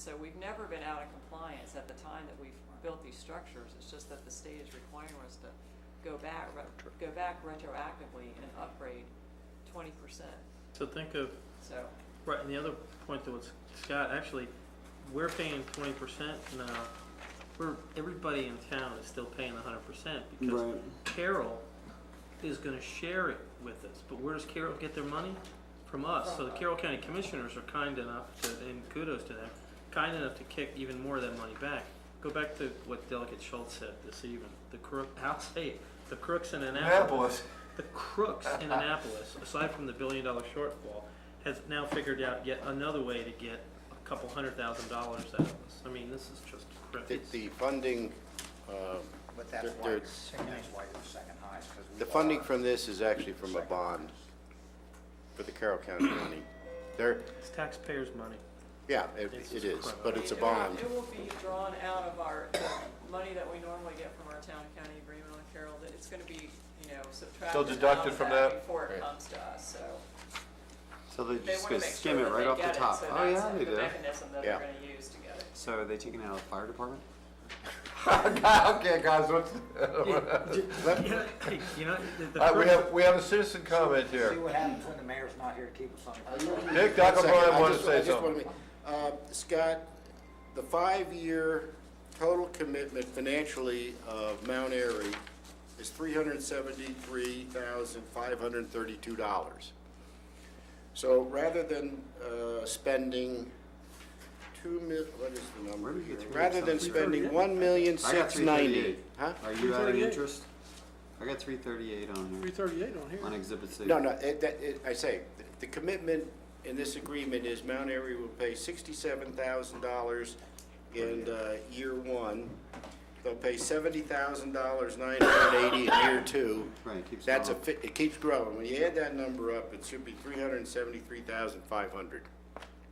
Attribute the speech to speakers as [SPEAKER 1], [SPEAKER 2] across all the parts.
[SPEAKER 1] So we've never been out of compliance at the time that we've built these structures. It's just that the state is requiring us to go back, re- go back retroactively and upgrade twenty percent.
[SPEAKER 2] So think of,
[SPEAKER 1] So,
[SPEAKER 2] right, and the other point that was, Scott, actually, we're paying twenty percent now. We're, everybody in town is still paying hundred percent because
[SPEAKER 3] Right.
[SPEAKER 2] Carroll is gonna share it with us, but where does Carroll get their money? From us, so the Carroll County Commissioners are kind enough to, and kudos to them, kind enough to kick even more of that money back. Go back to what Delegate Schultz said this evening, the crook, I'll say it, the crooks in Annapolis
[SPEAKER 4] Annapolis.
[SPEAKER 2] The crooks in Annapolis, aside from the billion dollar shortfall, has now figured out yet another way to get a couple hundred thousand dollars out of us. I mean, this is just
[SPEAKER 5] The,
[SPEAKER 2] crickets.
[SPEAKER 5] the funding, um,
[SPEAKER 6] But that's
[SPEAKER 5] There-
[SPEAKER 6] why,
[SPEAKER 5] there-
[SPEAKER 6] it's- that's why you're the second highest, because we are.
[SPEAKER 5] the funding from this is actually from a bond for the Carroll County money. There,
[SPEAKER 2] It's taxpayers' money.
[SPEAKER 5] yeah, it,
[SPEAKER 2] This is
[SPEAKER 5] it is,
[SPEAKER 2] crap.
[SPEAKER 5] but it's a
[SPEAKER 1] It will-
[SPEAKER 5] bond.
[SPEAKER 1] It will be drawn out of our, the money that we normally get from our town and county agreement on Carroll, that it's gonna be, you know, subtracted
[SPEAKER 4] So
[SPEAKER 1] out
[SPEAKER 4] deducted
[SPEAKER 1] of
[SPEAKER 4] from
[SPEAKER 1] that
[SPEAKER 4] that?
[SPEAKER 1] before
[SPEAKER 5] Right.
[SPEAKER 1] it comes to us, so.
[SPEAKER 3] So they're
[SPEAKER 1] They
[SPEAKER 3] just
[SPEAKER 1] wanna
[SPEAKER 3] gonna
[SPEAKER 1] make
[SPEAKER 3] skim
[SPEAKER 1] sure
[SPEAKER 3] it
[SPEAKER 1] that
[SPEAKER 3] right
[SPEAKER 1] they
[SPEAKER 3] off
[SPEAKER 1] get
[SPEAKER 3] the
[SPEAKER 1] it,
[SPEAKER 3] top.
[SPEAKER 1] so
[SPEAKER 3] Oh, yeah,
[SPEAKER 1] that's
[SPEAKER 3] they
[SPEAKER 1] the
[SPEAKER 3] do.
[SPEAKER 1] mechanism that they're
[SPEAKER 5] Yeah.
[SPEAKER 1] gonna use to get it.
[SPEAKER 3] So are they taking it out of the fire department?
[SPEAKER 4] Okay, guys, what's,
[SPEAKER 2] You know, the- the
[SPEAKER 4] Uh, we
[SPEAKER 2] crooks-
[SPEAKER 4] have, we have a citizen comment
[SPEAKER 6] See
[SPEAKER 4] here.
[SPEAKER 6] what happens when the mayor's not here to keep us on. the ground.
[SPEAKER 4] Nick
[SPEAKER 5] One second, I
[SPEAKER 4] Dockabon wanted to
[SPEAKER 5] just-
[SPEAKER 4] say
[SPEAKER 5] I just
[SPEAKER 4] something.
[SPEAKER 5] wanna make- uh, Scott, the five-year total commitment financially of Mount Airy is three hundred and seventy-three thousand, five hundred and thirty-two dollars. So rather than, uh, spending two mil, what is the
[SPEAKER 3] Where
[SPEAKER 5] number
[SPEAKER 3] did you
[SPEAKER 5] here?
[SPEAKER 3] get
[SPEAKER 5] Rather than
[SPEAKER 3] 338?
[SPEAKER 5] spending one million,
[SPEAKER 3] I got
[SPEAKER 5] six
[SPEAKER 3] three
[SPEAKER 5] ninety.
[SPEAKER 3] thirty-eight. Are
[SPEAKER 5] Huh?
[SPEAKER 3] you out of
[SPEAKER 7] 338.
[SPEAKER 3] interest? I got three thirty-eight on
[SPEAKER 7] Three
[SPEAKER 3] here,
[SPEAKER 7] thirty-eight on here.
[SPEAKER 3] on exhibit C.
[SPEAKER 5] No, no, it, that, it, I say, the- the commitment in this agreement is Mount Airy will pay sixty-seven thousand dollars in, uh, year one. They'll pay seventy thousand dollars, nine hundred and eighty in year two.
[SPEAKER 3] Right, it keeps
[SPEAKER 5] That's a,
[SPEAKER 3] going.
[SPEAKER 5] fi- it keeps growing. When you add that number up, it should be three hundred and seventy-three thousand, five hundred.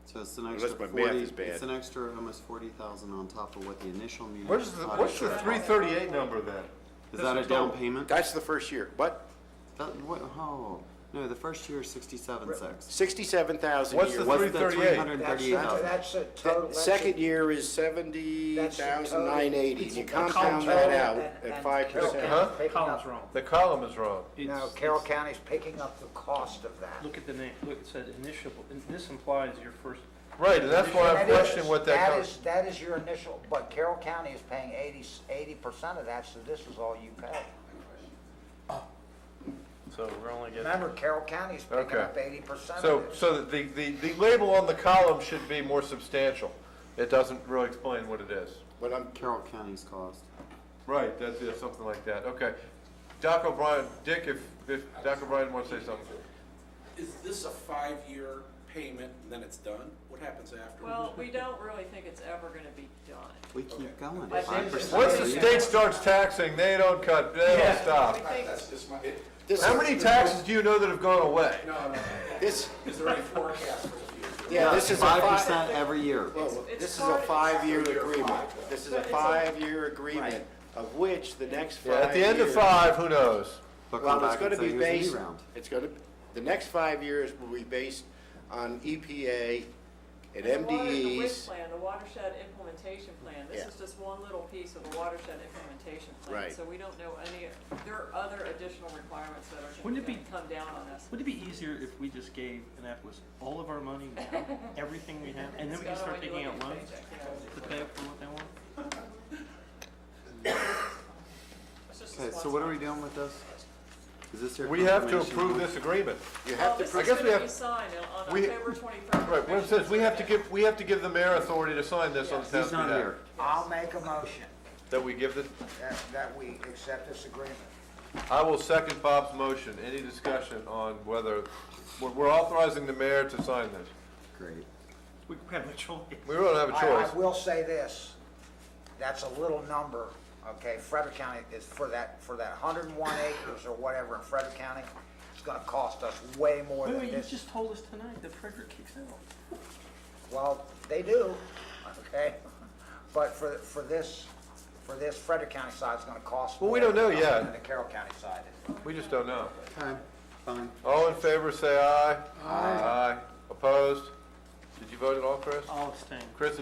[SPEAKER 3] So it's an
[SPEAKER 5] Unless
[SPEAKER 3] extra
[SPEAKER 5] my math
[SPEAKER 3] forty,
[SPEAKER 5] is bad.
[SPEAKER 3] it's an extra almost forty thousand on top of what the initial meeting.
[SPEAKER 4] Where's the, what's the three thirty-eight number then?
[SPEAKER 3] Is that a down payment?
[SPEAKER 5] That's the first year. What?
[SPEAKER 3] That, what, oh, no, the first year is sixty-seven six.
[SPEAKER 5] Sixty-seven thousand
[SPEAKER 4] What's
[SPEAKER 5] year
[SPEAKER 4] the
[SPEAKER 5] one.
[SPEAKER 3] What's the
[SPEAKER 4] 338?
[SPEAKER 3] three hundred and
[SPEAKER 6] That's,
[SPEAKER 3] thirty-eight
[SPEAKER 6] that's,
[SPEAKER 3] thousand?
[SPEAKER 6] that's a total.
[SPEAKER 5] The
[SPEAKER 6] that's a-
[SPEAKER 5] Second year is seventy thousand, nine eighty. You compound that out at five
[SPEAKER 6] Carroll
[SPEAKER 5] percent.
[SPEAKER 6] County's
[SPEAKER 4] Huh?
[SPEAKER 6] picking
[SPEAKER 2] Column's
[SPEAKER 6] up-
[SPEAKER 2] wrong.
[SPEAKER 4] The column is wrong.
[SPEAKER 2] It's-
[SPEAKER 6] No, Carroll
[SPEAKER 2] it's-
[SPEAKER 6] County's picking up the cost of that.
[SPEAKER 2] Look at the name, look, it said initial, and this implies your first,
[SPEAKER 4] Right, and that's why I'm
[SPEAKER 6] That is-
[SPEAKER 4] questioning what that
[SPEAKER 6] That
[SPEAKER 4] comes.
[SPEAKER 6] is, that is your initial, but Carroll County is paying eighty, eighty percent of that, so this is all you pay.
[SPEAKER 2] so we're only getting.
[SPEAKER 6] Remember, Carroll County's picking
[SPEAKER 4] Okay.
[SPEAKER 6] up eighty percent
[SPEAKER 4] So,
[SPEAKER 6] of this.
[SPEAKER 4] so that the, the, the label on the column should be more substantial. It doesn't really explain what it is.
[SPEAKER 5] But I'm
[SPEAKER 3] Carroll County's cost.
[SPEAKER 4] Right, that's, yeah, something like that, okay. Doc O'Brien, Dick, if, if Doc O'Brien wants to say something.
[SPEAKER 8] Is this a five-year payment and then it's done? What happens afterwards?
[SPEAKER 1] Well, we don't really think it's ever gonna be done.
[SPEAKER 3] We keep going,
[SPEAKER 1] I
[SPEAKER 3] five
[SPEAKER 1] think-
[SPEAKER 3] percent.
[SPEAKER 4] Once the state starts taxing, they don't cut, they don't
[SPEAKER 1] We
[SPEAKER 4] stop.
[SPEAKER 1] think
[SPEAKER 8] That's just my, it-
[SPEAKER 5] This
[SPEAKER 4] How
[SPEAKER 5] is-
[SPEAKER 4] many taxes do you know that have gone away?
[SPEAKER 8] no, no, no.
[SPEAKER 5] This,
[SPEAKER 8] Is there any forecast for the future?
[SPEAKER 5] yeah, this is a
[SPEAKER 3] Five
[SPEAKER 5] five,
[SPEAKER 3] percent every year.
[SPEAKER 5] well,
[SPEAKER 1] It's
[SPEAKER 5] this is a
[SPEAKER 1] part-
[SPEAKER 5] five-year
[SPEAKER 8] Five-year
[SPEAKER 5] agreement.
[SPEAKER 8] five.
[SPEAKER 5] This is a five-year agreement, of which the next five
[SPEAKER 4] Yeah,
[SPEAKER 5] years.
[SPEAKER 4] at the end of five, who knows?
[SPEAKER 3] They'll come
[SPEAKER 5] Well, it's
[SPEAKER 3] back and
[SPEAKER 5] gonna
[SPEAKER 3] say,
[SPEAKER 5] be
[SPEAKER 3] here's a new
[SPEAKER 5] based,
[SPEAKER 3] round.
[SPEAKER 5] it's gonna, the next five years will be based on EPA and
[SPEAKER 1] And the water- The WIC
[SPEAKER 5] MDEs.
[SPEAKER 1] plan, the watershed implementation plan, this
[SPEAKER 5] Yeah.
[SPEAKER 1] is just one little piece of the watershed implementation plan.
[SPEAKER 5] Right.
[SPEAKER 1] So we don't know any, there are other additional requirements that are
[SPEAKER 2] Wouldn't
[SPEAKER 1] gonna
[SPEAKER 2] it be-
[SPEAKER 1] gonna come down on us.
[SPEAKER 2] Would it be easier if we just gave Annapolis all of our money now, everything we have, and then we can
[SPEAKER 1] It's kinda
[SPEAKER 2] start
[SPEAKER 1] when you
[SPEAKER 2] taking
[SPEAKER 1] look
[SPEAKER 2] out
[SPEAKER 1] at your
[SPEAKER 2] loans
[SPEAKER 1] paycheck, you know,
[SPEAKER 2] to pay up for what they want?
[SPEAKER 1] it's just
[SPEAKER 3] Okay,
[SPEAKER 1] this
[SPEAKER 3] so
[SPEAKER 1] one
[SPEAKER 3] what are we
[SPEAKER 1] time.
[SPEAKER 3] doing with this? Is this your?
[SPEAKER 4] We have to
[SPEAKER 3] confirmation?
[SPEAKER 4] approve this agreement.
[SPEAKER 5] You
[SPEAKER 1] Well,
[SPEAKER 5] have to,
[SPEAKER 1] this
[SPEAKER 4] I
[SPEAKER 1] is
[SPEAKER 4] guess we
[SPEAKER 1] gonna
[SPEAKER 4] have-
[SPEAKER 1] be signed on on
[SPEAKER 4] we-
[SPEAKER 1] October twenty-first.
[SPEAKER 4] Right, well, it says we have to give, we have to give the mayor authority to sign this on the town's
[SPEAKER 3] He's not
[SPEAKER 4] behalf.
[SPEAKER 3] here.
[SPEAKER 6] I'll make a motion
[SPEAKER 4] That we give the,
[SPEAKER 6] that, that we accept this agreement.
[SPEAKER 4] I will second Bob's motion. Any discussion on whether, we're, we're authorizing the mayor to sign this.
[SPEAKER 3] Great.
[SPEAKER 2] We have no choice.
[SPEAKER 4] We don't have a
[SPEAKER 6] I, I
[SPEAKER 4] choice.
[SPEAKER 6] will say this, that's a little number, okay, Frederick County is for that, for that hundred and one acres or whatever in Frederick County, it's gonna cost us way more
[SPEAKER 2] Wait,
[SPEAKER 6] than
[SPEAKER 2] wait, you
[SPEAKER 6] this.
[SPEAKER 2] just told us tonight that Frederick kicks out.
[SPEAKER 6] Well, they do, okay, but for, for this, for this Frederick County side, it's gonna cost.
[SPEAKER 4] Well, we
[SPEAKER 6] more
[SPEAKER 4] don't know
[SPEAKER 6] than
[SPEAKER 4] yet.
[SPEAKER 6] The Carroll County side is.
[SPEAKER 4] We just don't know.
[SPEAKER 3] Okay, fine.
[SPEAKER 4] All in favor, say aye. Aye. Opposed? Did you vote at all, Chris?
[SPEAKER 2] I'll abstain.
[SPEAKER 4] Chris